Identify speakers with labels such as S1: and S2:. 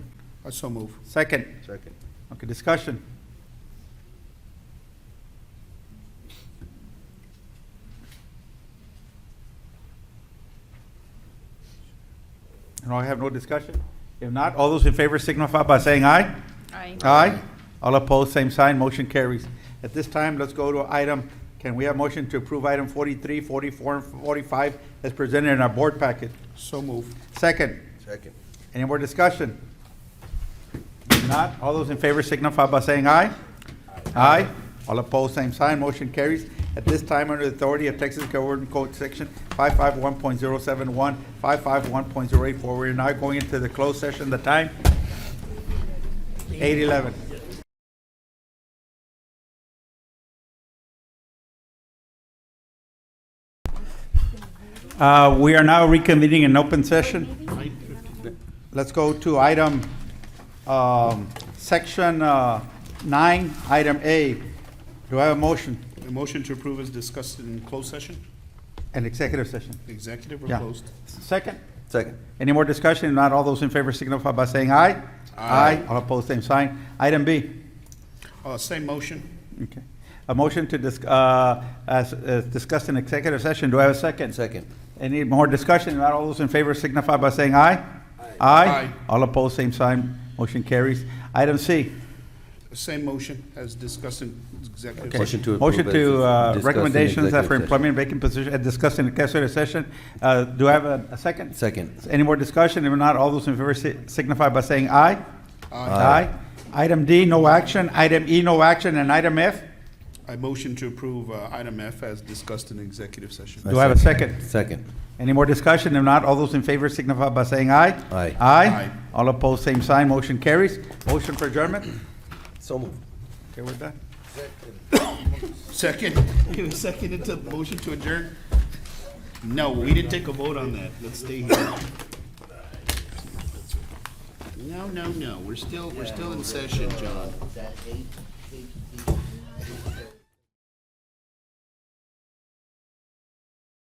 S1: I
S2: Uh,
S1: so move.
S2: Second.
S3: Second.
S2: Okay, discussion. And I have no discussion? If not, all those in favor signify by saying aye.
S4: Aye.
S2: Aye. All opposed, same sign, motion carries. At this time, let's go to item, can we have motion to approve item 43, 44, and 45 as presented in our board packet?
S1: So move.
S2: Second.
S3: Second.
S2: Any more discussion? If not, all those in favor signify by saying aye. Aye. All opposed, same sign, motion carries. At this time, under the authority of Texas Government Code Section 551.071, 551.084, we are now going into the closed session. The time? 8:11. Uh, We are now reconvening in open session. Let's go to item, um, section, uh, nine, item A. Do I have a motion?
S1: A motion to approve is discussed in closed session,
S2: An executive session?
S1: executive or
S2: Yeah.
S1: closed?
S2: Second?
S3: Second.
S2: Any more discussion? If Not all those in favor signify by saying aye. Aye. All opposed, same sign. Item B.
S1: Uh, same motion,
S2: Okay. A motion to dis, uh, as, as discussed in executive session. Do I have a second?
S3: Second.
S2: Any more discussion? If Not all those in favor signify by saying aye. Aye. All opposed, same sign. Motion carries. Item C.
S1: same motion as discussed in executive
S2: Okay.
S1: session.
S3: Motion to approve
S2: Motion
S3: as
S2: to, uh,
S3: discussed in
S2: recommendations
S3: executive
S2: for
S3: session.
S2: employment vacant position, as discussed in executive session. Uh, Do I have a a second?
S3: Second.
S2: Any more discussion? If not, all those in favor si- signify by saying aye.
S3: Aye.
S2: Item D, no action. Item E, no action. And item F,
S1: I motion to approve, uh, item F as discussed in executive session.
S2: do I have a second?
S3: Second.
S2: Any more discussion? If not, all those in favor signify by saying aye.
S3: Aye.
S2: Aye.
S1: Aye.
S2: All opposed, same sign. Motion carries. Motion for adjournment.
S3: So moved.
S2: Okay, we're done.
S1: Second, you seconded the motion to adjourn? No, we didn't take a vote on that, let's stay here. No, no, no, we're still, we're still in session, John.
S5: that eight, eight